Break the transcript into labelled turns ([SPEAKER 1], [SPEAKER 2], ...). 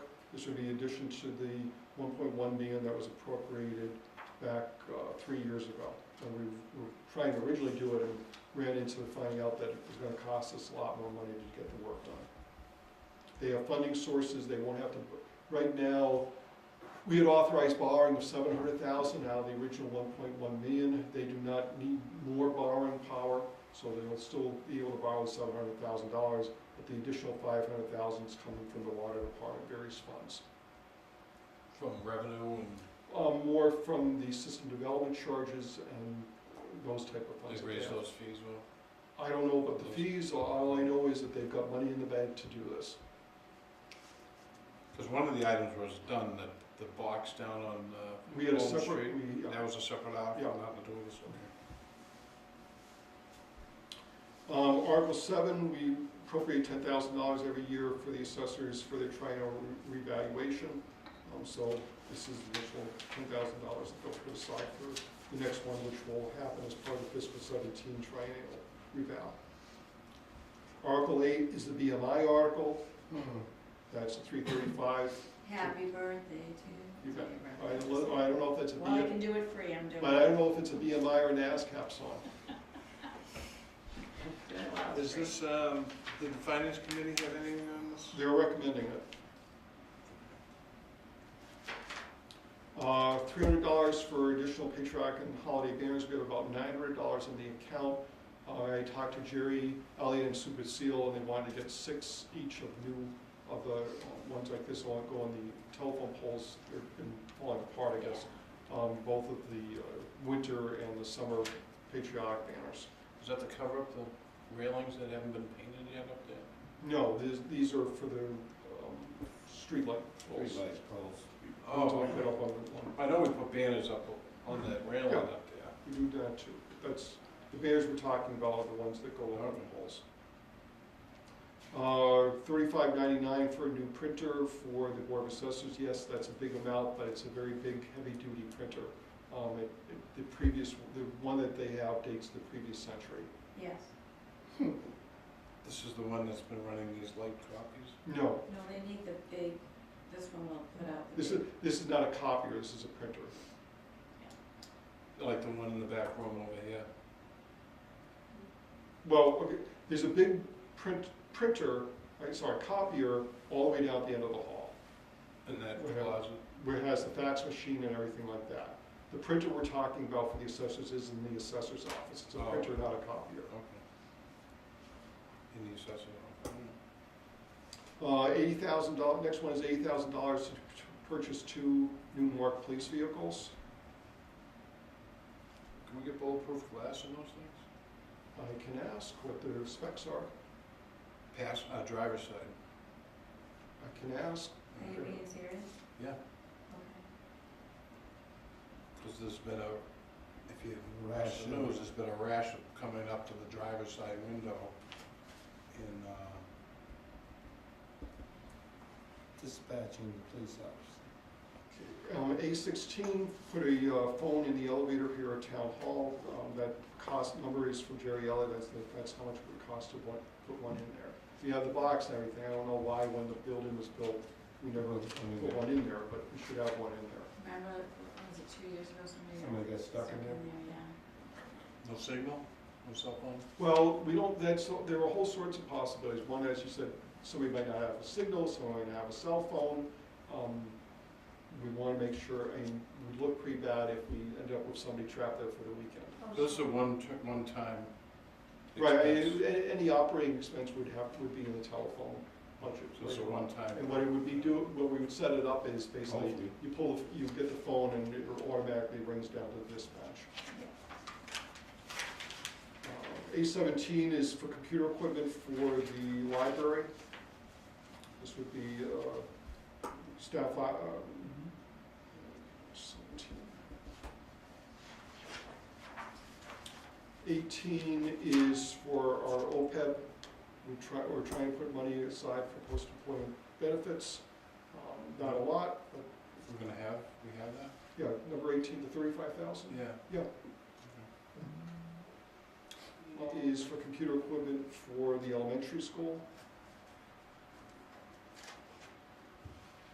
[SPEAKER 1] This would be in addition to the 1.1 million that was appropriated back uh, three years ago. And we were trying to originally do it and ran into finding out that it was gonna cost us a lot more money to get the work done. They have funding sources, they won't have to, right now, we had authorized borrowing of seven hundred thousand, now the original one point one million, they do not need more borrowing power, so they'll still be able to borrow seven hundred thousand dollars, but the additional five hundred thousand is coming from the water department, various funds.
[SPEAKER 2] From revenue and
[SPEAKER 1] Um, more from the system development charges and those type of funds.
[SPEAKER 2] they raise those fees, well,
[SPEAKER 1] I don't know about the fees, all I know is that they've got money in the bank to do this.
[SPEAKER 2] because one of the items was done, that the box down on, uh,
[SPEAKER 1] We had a
[SPEAKER 2] Golden
[SPEAKER 1] separate, we, uh,
[SPEAKER 2] that was a separate item,
[SPEAKER 1] Yeah.
[SPEAKER 2] nothing to do with this, okay.
[SPEAKER 1] Um, Article seven, we appropriate ten thousand dollars every year for the assessors for their triennial re- revaluation. Um, so this is the initial ten thousand dollars that they'll put aside for the next one, which will happen as part of fiscal seventeen triennial reval. Article eight is the BMI article, that's three thirty-five.
[SPEAKER 3] Happy birthday to
[SPEAKER 1] You
[SPEAKER 3] you.
[SPEAKER 1] got I don't, know- I don't know if that's a
[SPEAKER 3] Well, I
[SPEAKER 1] BMI,
[SPEAKER 3] can do it free, I'm doing
[SPEAKER 1] but I
[SPEAKER 3] it.
[SPEAKER 1] don't know if it's a BMI or an ASCAP song.
[SPEAKER 3] Doing a lot of
[SPEAKER 2] Is
[SPEAKER 3] free.
[SPEAKER 2] this, um, did the finance committee um, have anything on this?
[SPEAKER 1] They're recommending it. Uh, three hundred dollars for additional patriotic and holiday banners, we have about nine hundred dollars in the account. Uh, I talked to Jerry, Elliot, and Super Seal, and they wanted to get six each of new, of the uh, ones like this, won't go on the telephone poles, they've been falling apart, I guess. Um, both of the uh, winter and the summer patriotic banners.
[SPEAKER 2] Is that to cover up the railings that haven't been painted yet up there?
[SPEAKER 1] No, these, these are for the, um, streetlight poles. Ones
[SPEAKER 2] Oh,
[SPEAKER 1] I put up on the- on-
[SPEAKER 2] I know we put banners up on that railing up there.
[SPEAKER 1] We do that too. That's, the bears we're talking about are the ones that go along the poles. Uh, thirty-five ninety-nine for a new printer for the Board of Assessors. Yes, that's a big amount, but it's a very big, heavy-duty printer. Um, it, it- the previous, the one that they have dates the previous century.
[SPEAKER 3] Yes,
[SPEAKER 2] This is the one that's been running these light copies?
[SPEAKER 1] No,
[SPEAKER 3] no, they need the big, this one will put out the
[SPEAKER 1] this
[SPEAKER 3] big.
[SPEAKER 1] is, this is not a copier, this is a printer.
[SPEAKER 2] Like the one in the back room over here?
[SPEAKER 1] Well, okay, there's a big print, printer, I'm sorry, copier, all the way down at the end of the hall.
[SPEAKER 2] In that
[SPEAKER 1] Okay.
[SPEAKER 2] closet?
[SPEAKER 1] where it has the fax machine and everything like that. The printer we're talking about for the assessors is in the assessor's office, it's a
[SPEAKER 2] Oh.
[SPEAKER 1] printer, not a copier.
[SPEAKER 2] Okay. In the assessment office?
[SPEAKER 1] Uh, eighty thousand dollars, next one is eighty thousand dollars to purchase two new Mark police vehicles.
[SPEAKER 2] Can we get bulletproof glass in those things?
[SPEAKER 1] I can ask what their specs are,
[SPEAKER 2] Pass, uh, driver's side.
[SPEAKER 1] I can ask,
[SPEAKER 3] Are you being serious?
[SPEAKER 2] Yeah.
[SPEAKER 3] Okay.
[SPEAKER 2] Because there's been a, if you watch the news, there's been a rash of coming up to the driver's side window in, uh,
[SPEAKER 4] dispatching the police officer.
[SPEAKER 1] Um, A sixteen, put a uh, phone in the elevator here at Town Hall. Um, That cost number is from Jerry Elliott, that's, the- that's how much it would cost to one, put one in there. You have the box and everything, I don't know why when the building was built, we never put one in there, but we should have one in there.
[SPEAKER 3] Remember, what was it two years ago, somebody
[SPEAKER 4] Somebody
[SPEAKER 3] got
[SPEAKER 4] got stuck
[SPEAKER 3] stuck
[SPEAKER 4] in there.
[SPEAKER 3] in there, yeah.
[SPEAKER 2] no signal, no cell phone.
[SPEAKER 1] Well, we don't, that's, there are whole sorts of possibilities. One, as you said, somebody might not have a signal, somebody might have a cell phone. Um, We wanna make sure, I mean, we'd look pretty bad if we end up with somebody trapped there for the weekend.
[SPEAKER 2] This is a one, t- one time.
[SPEAKER 1] Right, I
[SPEAKER 2] expense.
[SPEAKER 1] mean, a- any operating expense would have, would be in the telephone budget.
[SPEAKER 2] So it's a one time.
[SPEAKER 1] And what it would be do, what we would set it up is basically,
[SPEAKER 4] Hopefully.
[SPEAKER 1] you pull, the- you get the phone and it automatically rings down to the dispatch. A seventeen is for computer equipment for the library. This would be, uh, staff, li- uh, seventeen. Eighteen is for our OPEB. We try, we're trying to put money aside for post-employment benefits. Um, Not a lot, but,
[SPEAKER 2] We're gonna have, we have that?
[SPEAKER 1] yeah, number eighteen to thirty-five thousand.
[SPEAKER 2] Yeah.
[SPEAKER 1] Yeah. is for computer equipment for the elementary school.